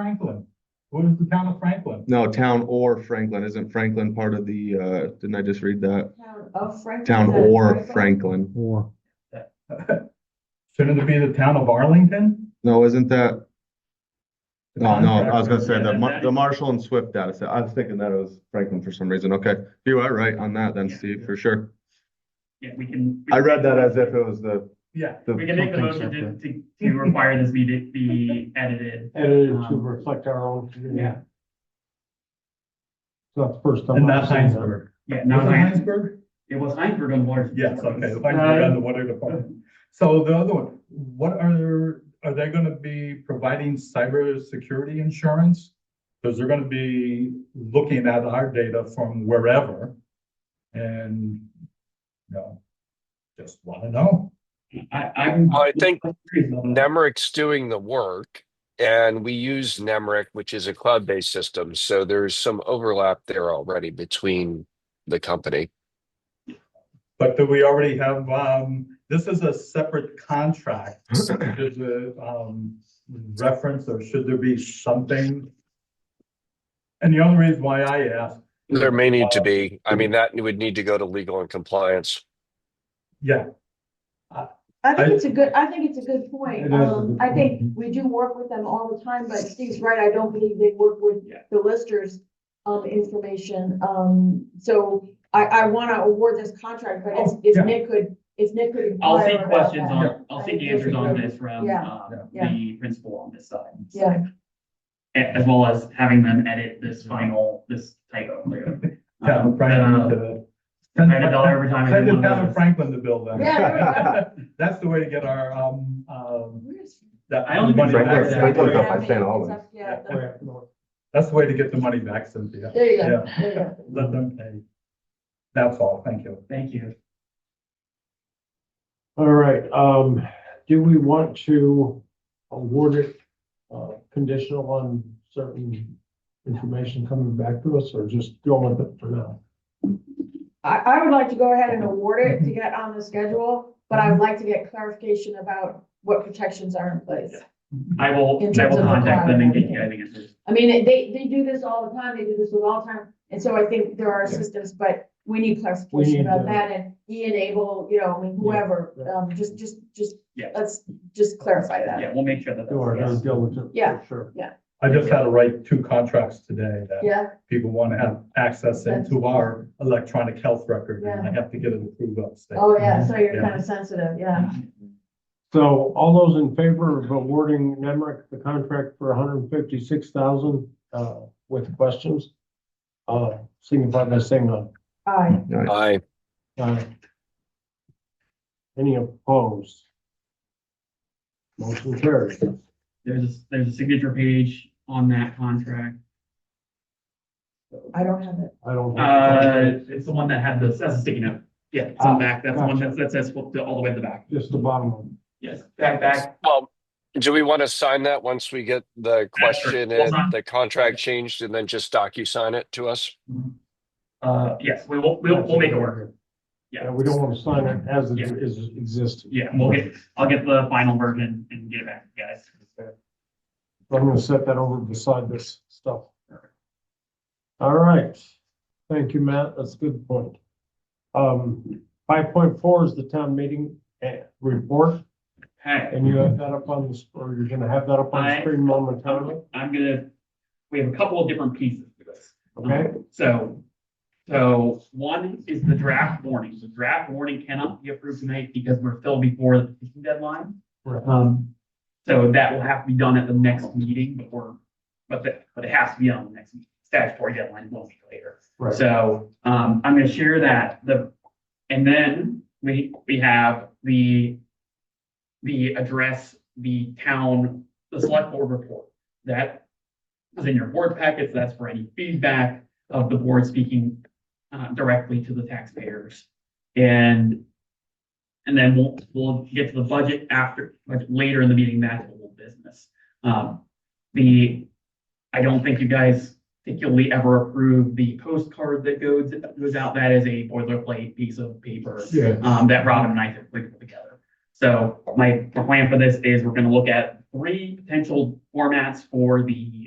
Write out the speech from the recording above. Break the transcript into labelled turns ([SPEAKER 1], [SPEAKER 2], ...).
[SPEAKER 1] Franklin? What is the town of Franklin?
[SPEAKER 2] No, town or Franklin. Isn't Franklin part of the, uh, didn't I just read that?
[SPEAKER 3] Town of Franklin.
[SPEAKER 2] Town
[SPEAKER 3] is that
[SPEAKER 2] or Franklin.
[SPEAKER 4] Or,
[SPEAKER 1] Shouldn't it be the town of Arlington?
[SPEAKER 2] No, isn't that? No, no, I was gonna say the,
[SPEAKER 5] Yeah,
[SPEAKER 2] Mar-
[SPEAKER 5] that-
[SPEAKER 2] the Marshall and Swift data set. I was thinking that it was Franklin for some reason. Okay. You are right on that then,
[SPEAKER 5] Yeah.
[SPEAKER 2] Steve, for sure.
[SPEAKER 5] Yeah, we can.
[SPEAKER 2] I read that as if it was the,
[SPEAKER 1] Yeah.
[SPEAKER 2] the,
[SPEAKER 5] We can make the motion to, to, to require this be, be edited.
[SPEAKER 4] edited to
[SPEAKER 5] Um,
[SPEAKER 4] reflect our own. community.
[SPEAKER 5] Yeah.
[SPEAKER 4] So that's the first time.
[SPEAKER 1] And
[SPEAKER 4] I've
[SPEAKER 1] not
[SPEAKER 4] seen that.
[SPEAKER 1] Heinsberg.
[SPEAKER 5] Yeah,
[SPEAKER 1] Was
[SPEAKER 5] not
[SPEAKER 1] it
[SPEAKER 5] Heinz,
[SPEAKER 1] Heinsberg? Uh,
[SPEAKER 5] it was Heinzberg on Uh, water.
[SPEAKER 1] Yes, okay, Heinsberg on the water department. So the other one, what are, are they gonna be providing cybersecurity insurance? Because they're gonna be looking at our data from wherever. And, you know, just wanna know.
[SPEAKER 5] I, I'm.
[SPEAKER 6] I think Nemric's doing the work and we use Nemric, which is a cloud-based system. So there's some overlap there already between the company.
[SPEAKER 1] But do we already have, um, this is a separate contract. Is it, um, reference or should there be something? And the only reason why I ask,
[SPEAKER 6] There may need to be, I mean, that would need to go to legal and compliance.
[SPEAKER 1] yeah,
[SPEAKER 3] I think
[SPEAKER 1] I-
[SPEAKER 3] it's a good, I think it's a good
[SPEAKER 4] It
[SPEAKER 3] point.
[SPEAKER 4] is a
[SPEAKER 3] Um,
[SPEAKER 4] good
[SPEAKER 3] I think
[SPEAKER 4] point.
[SPEAKER 3] we do work with them all the time, but Steve's right, I don't believe they work with
[SPEAKER 5] Yeah.
[SPEAKER 3] the listers um, information. Um, so I, I wanna award this contract, but if,
[SPEAKER 1] Oh, yeah.
[SPEAKER 3] if Nick could, if Nick could.
[SPEAKER 5] I'll
[SPEAKER 3] inquire
[SPEAKER 5] take
[SPEAKER 3] about
[SPEAKER 5] questions
[SPEAKER 3] that.
[SPEAKER 5] on, I'll take answers on this from,
[SPEAKER 3] Yeah,
[SPEAKER 5] uh,
[SPEAKER 3] yeah.
[SPEAKER 5] the principal on this side.
[SPEAKER 3] Yeah,
[SPEAKER 5] A- As well as having them edit this final, this typo.
[SPEAKER 1] yeah,
[SPEAKER 5] Um,
[SPEAKER 1] Franklin.
[SPEAKER 5] uh,
[SPEAKER 1] to-
[SPEAKER 5] Write a dollar every time. I
[SPEAKER 1] Send
[SPEAKER 5] do
[SPEAKER 1] it
[SPEAKER 5] one of
[SPEAKER 1] down to
[SPEAKER 5] those.
[SPEAKER 1] Franklin to build that.
[SPEAKER 3] Yeah, there
[SPEAKER 1] That's the way to get our, um, um,
[SPEAKER 3] Where's-
[SPEAKER 1] that
[SPEAKER 5] I only
[SPEAKER 1] money
[SPEAKER 5] think
[SPEAKER 1] back.
[SPEAKER 5] Franklin's- Franklin's
[SPEAKER 2] up
[SPEAKER 1] That's
[SPEAKER 2] by St. Albans.
[SPEAKER 3] Yeah,
[SPEAKER 4] Way up north.
[SPEAKER 1] the way to get the money back, Cynthia.
[SPEAKER 3] there you go,
[SPEAKER 1] Yeah.
[SPEAKER 3] there you go.
[SPEAKER 1] Let them pay. That's all, thank you.
[SPEAKER 5] Thank you.
[SPEAKER 4] All right, um, do we want to award it, uh, conditional on certain information coming back to us or just go with it for now?
[SPEAKER 3] I, I would like to go ahead and award it to get on the schedule, but I would like to get clarification about what protections are in place.
[SPEAKER 5] I will,
[SPEAKER 3] In
[SPEAKER 5] I
[SPEAKER 3] terms
[SPEAKER 5] will
[SPEAKER 3] of the
[SPEAKER 5] contact them and get you
[SPEAKER 3] cloud.
[SPEAKER 5] guys answers.
[SPEAKER 3] I mean, it- they, they do this all the time, they do this with all time, and so I think there are systems, but we need
[SPEAKER 4] We need
[SPEAKER 3] clarification about
[SPEAKER 4] to-
[SPEAKER 3] that, and Ian Abel, you know, I mean, whoever,
[SPEAKER 4] Yeah.
[SPEAKER 3] um, just, just, just,
[SPEAKER 5] Yeah.
[SPEAKER 3] let's just clarify that.
[SPEAKER 5] Yeah, we'll make sure that.
[SPEAKER 4] Do our due
[SPEAKER 5] that's-
[SPEAKER 4] diligence. for
[SPEAKER 3] Yeah.
[SPEAKER 4] Sure.
[SPEAKER 1] I just had to write two contracts today that
[SPEAKER 3] Yeah,
[SPEAKER 1] people want to have access into our electronic health record, and I have to get it approved upstate.
[SPEAKER 3] oh, yeah, so you're
[SPEAKER 1] Yeah.
[SPEAKER 3] kind of sensitive, yeah.
[SPEAKER 4] So all those in favor of awarding Nemrick the contract for hundred and fifty-six thousand, uh, with questions? Uh, signify by saying aye.
[SPEAKER 3] All right,
[SPEAKER 6] I,
[SPEAKER 4] Aye. Any opposed? Motion carries.
[SPEAKER 5] There's, a- there's a signature page on that contract.
[SPEAKER 3] I don't have it.
[SPEAKER 4] I don't.
[SPEAKER 5] Uh, it's the one that had the, that's a sticky note. Yeah, it's on the back. That's the one that, that says all the way at the back.
[SPEAKER 4] Just the bottom one.
[SPEAKER 5] Yes, back, back.
[SPEAKER 6] well, do we want to sign that once we get the question
[SPEAKER 5] Hold on.
[SPEAKER 6] and the contract changed and then just docu-sign it to us?
[SPEAKER 5] Uh, yes, we will, we'll, we'll make it work.
[SPEAKER 4] Yeah,
[SPEAKER 5] Yeah.
[SPEAKER 4] we don't want to sign it as it
[SPEAKER 5] Yeah.
[SPEAKER 4] is existing.
[SPEAKER 5] Yeah, we'll get, I'll get the final version and get it back, to you guys.
[SPEAKER 4] I'm gonna set that over beside this stuff. All right, thank you, Matt, that's a good point. Um, five point four is the town meeting eh, report,
[SPEAKER 5] Hey,
[SPEAKER 4] and you have that up on this, or you're gonna have that up on the
[SPEAKER 5] I-
[SPEAKER 4] screen momentarily,
[SPEAKER 5] I'm gonna, we have a couple of different pieces to this.
[SPEAKER 4] okay?
[SPEAKER 5] So, so one is the draft warning. The draft warning cannot be approved tonight because we're still before the petition deadline. Um, so that will have to be done at the next meeting, but we're, but the, but it has to be on the next meeting. statutory deadline, will be later.
[SPEAKER 4] Right,
[SPEAKER 5] So, um, I'm gonna share that, the, and then we, we have the, the address, the town, the select board report. That is in your board packets, that's for any feedback of the board speaking, uh, directly to the taxpayers. And, and then we'll, we'll get to the budget after, like, later in the meeting, that's old business. Um, the, I don't think you guys particularly ever approve the postcard that goes, goes out. That is a boilerplate piece of paper
[SPEAKER 4] yeah,
[SPEAKER 5] um, that Robin and I typically put together. So my plan for this is we're gonna look at three potential formats for the